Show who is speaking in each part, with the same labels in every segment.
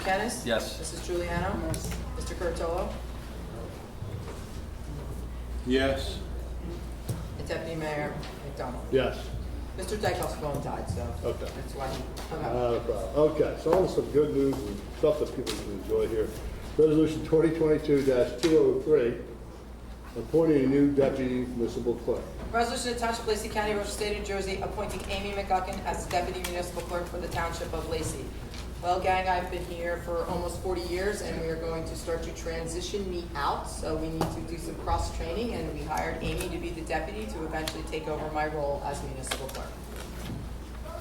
Speaker 1: Kennis?
Speaker 2: Yes.
Speaker 1: Mrs. Juliano? Yes. Mr. Curatolo?
Speaker 3: Yes.
Speaker 1: And Deputy Mayor McDonald?
Speaker 3: Yes.
Speaker 1: Mr. Dykoff's phone died, so
Speaker 3: Okay.
Speaker 1: that's why he hung up.
Speaker 3: Not a problem. Okay, so on some good news and stuff that people can enjoy here. Resolution 2022-203, appointing a new deputy municipal clerk.
Speaker 1: Resolution to Township of Lacey County, Ocean State, New Jersey, appointing Amy McGuckin as Deputy Municipal Clerk for the Township of Lacey. Well, gang, I've been here for almost 40 years, and we are going to start to transition me out, so we need to do some cross-training, and we hired Amy to be the deputy to eventually take over my role as Municipal Clerk.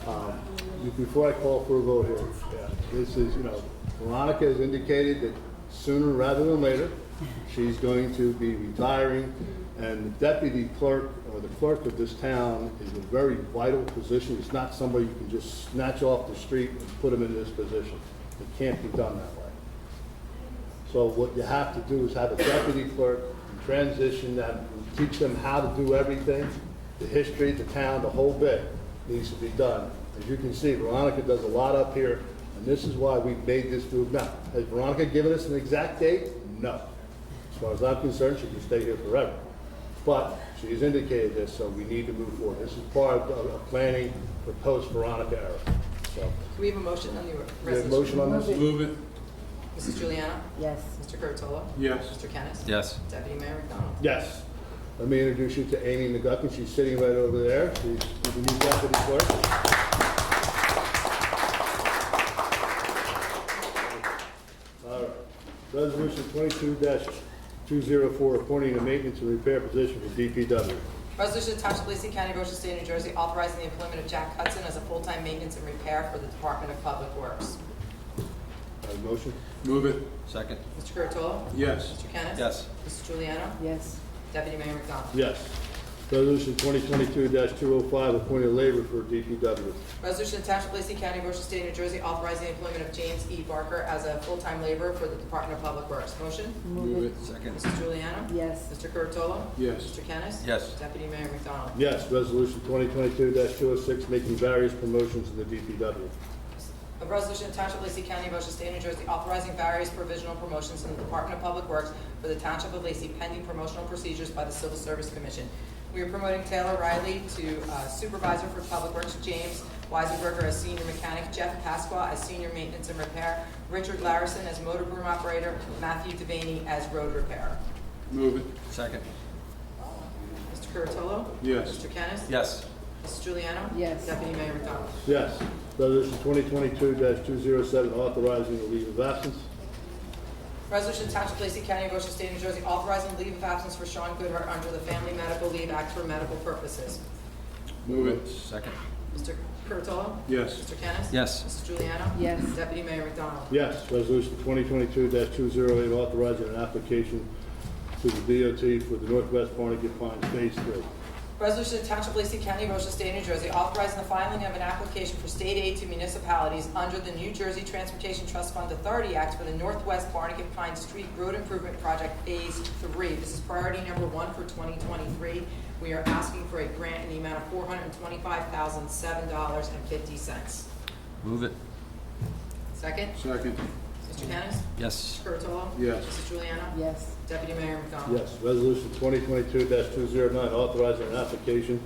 Speaker 3: Um, you- Before I call for a vote here, yeah, this is, you know, Veronica has indicated that sooner rather than later, she's going to be retiring, and the deputy clerk, or the clerk of this town, is a very vital position. It's not somebody you can just snatch off the street and put them in this position. It can't be done that way. So what you have to do is have a deputy clerk, transition them, teach them how to do everything, the history, the town, the whole bit needs to be done. As you can see, Veronica does a lot up here, and this is why we made this move. Now, has Veronica given us an exact date? No. As far as I'm concerned, she can stay here forever. But she's indicated this, so we need to move forward. This is part of, of planning for post-Veronica era. So,
Speaker 1: Do we have a motion on the
Speaker 3: we have a
Speaker 1: resolution?
Speaker 3: motion on this?
Speaker 4: Move it.
Speaker 1: Mrs. Juliana?
Speaker 5: Yes.
Speaker 1: Mr. Curatolo?
Speaker 4: Yes.
Speaker 1: Mr. Kennis?
Speaker 2: Yes.
Speaker 1: Deputy Mayor McDonald?
Speaker 3: Yes. Let me introduce you to Amy McGuckin. She's sitting right over there. She's the new deputy clerk. All right. Resolution twenty-two two zero four, appointing a maintenance and repair position for DPW.
Speaker 1: Resolution to Township of Lacey County, Ocean State, New Jersey, authorizing the employment of Jack Hudson as a full-time maintenance and repair for the Department of Public Works.
Speaker 3: Have a motion?
Speaker 4: Move it.
Speaker 2: Second.
Speaker 1: Mr. Curatolo?
Speaker 4: Yes.
Speaker 1: Mr. Kennis?
Speaker 2: Yes.
Speaker 1: Mrs. Juliana?
Speaker 5: Yes.
Speaker 1: Deputy Mayor McDonald?
Speaker 3: Yes. Resolution twenty twenty-two two oh five, appointing labor for DPW.
Speaker 1: Resolution to Township of Lacey County, Ocean State, New Jersey, authorizing the employment of James E. Barker as a full-time laborer for the Department of Public Works. Motion?
Speaker 4: Move it.
Speaker 2: Second.
Speaker 1: Mrs. Juliana?
Speaker 5: Yes.
Speaker 1: Mr. Curatolo?
Speaker 4: Yes.
Speaker 1: Mr. Kennis?
Speaker 2: Yes.
Speaker 1: Deputy Mayor McDonald?
Speaker 3: Yes. Resolution twenty twenty-two two oh six, making various promotions in the DPW.
Speaker 1: A resolution of Township of Lacey County, Ocean State, New Jersey, authorizing various provisional promotions in the Department of Public Works for the Township of Lacey pending promotional procedures by the Civil Service Commission. We are promoting Taylor Riley to uh, Supervisor for Public Works, James Weisenberger as Senior Mechanic, Jeff Pasqua as Senior Maintenance and Repair, Richard Larison as Motor Room Operator, Matthew Devaney as Road Repairer.
Speaker 4: Move it.
Speaker 2: Second.
Speaker 1: Mr. Curatolo?
Speaker 4: Yes.
Speaker 1: Mr. Kennis?
Speaker 2: Yes.
Speaker 1: Mrs. Juliana?
Speaker 5: Yes.
Speaker 1: Deputy Mayor McDonald?
Speaker 3: Yes. Resolution 2022-207, authorizing the leave of absence.
Speaker 1: Resolution to Township of Lacey County, Ocean State, New Jersey, authorizing leave of absence for Sean Goodhart under the Family Medical Leave Act for medical purposes.
Speaker 4: Move it.
Speaker 2: Second.
Speaker 1: Mr. Curatolo?
Speaker 4: Yes.
Speaker 1: Mr. Kennis?
Speaker 2: Yes.
Speaker 1: Mrs. Juliana?
Speaker 5: Yes.
Speaker 1: Deputy Mayor McDonald?
Speaker 3: Yes. Resolution 2022-208, authorizing an application to the DOT for the Northwest Barnegat Pines Phase 3.
Speaker 1: Resolution to Township of Lacey County, Ocean State, New Jersey, authorizing the filing of an application for state aid to municipalities under the New Jersey Transportation Trust Fund Authority Act for the Northwest Barnegat Pine Street Road Improvement Project Phase Three. This is priority number one for 2023. We are asking for a grant in the amount of $425,007.50.
Speaker 2: Move it.
Speaker 1: Second,
Speaker 4: Second.
Speaker 1: Mr. Kennis?
Speaker 2: Yes.
Speaker 1: Mr. Curatolo?
Speaker 4: Yes.
Speaker 1: Mrs. Juliana?
Speaker 5: Yes.
Speaker 1: Deputy Mayor McDonald?
Speaker 3: Yes. Resolution 2022-209, authorizing an application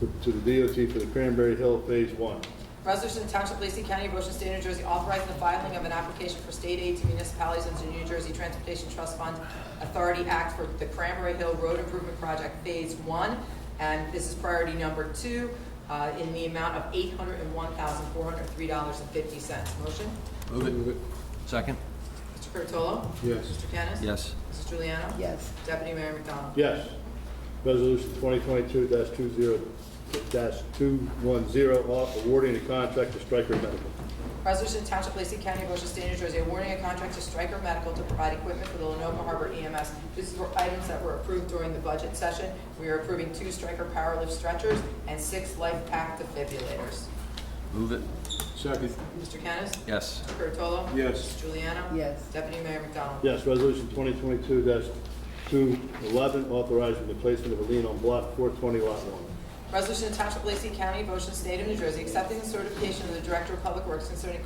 Speaker 3: to- to the DOT for the Cranberry Hill Phase 1.
Speaker 1: Resolution to Township of Lacey County, Ocean State, New Jersey, authorizing the filing of an application for state aid to municipalities under the New Jersey Transportation Trust Fund Authority Act for the Cranberry Hill Road Improvement Project Phase One. And this is priority number two, uh, in the amount of eight hundred and one thousand, four hundred and three dollars and fifty cents. Motion?
Speaker 4: Move it. Move it.
Speaker 2: Second.
Speaker 1: Mr. Curatolo?
Speaker 4: Yes.
Speaker 1: Mr. Kennis?
Speaker 2: Yes.
Speaker 1: Mrs. Juliana?
Speaker 5: Yes.
Speaker 1: Deputy Mayor McDonald?
Speaker 3: Yes. Resolution 2022-20-210, au- awarding a contract to Stryker Medical.
Speaker 1: Resolution to Township of Lacey County, Ocean State, New Jersey, awarding a contract to Stryker Medical to provide equipment for the Lenoka Harbor EMS. These were items that were approved during the budget session. We are approving two Stryker Powerlift stretchers and six Life Pack defibrillators.
Speaker 2: Move it.
Speaker 4: Second.
Speaker 1: Mr. Kennis?
Speaker 2: Yes.
Speaker 1: Mr. Curatolo?
Speaker 4: Yes.
Speaker 1: Mrs. Juliana?
Speaker 5: Yes.
Speaker 1: Deputy Mayor McDonald?
Speaker 3: Yes, resolution twenty twenty-two two eleven, authorizing the placement of a lien on block four twenty lot one.
Speaker 1: Resolution to Township of Lacey County, Ocean State of New Jersey, accepting the certification of the Director of Public Works concerning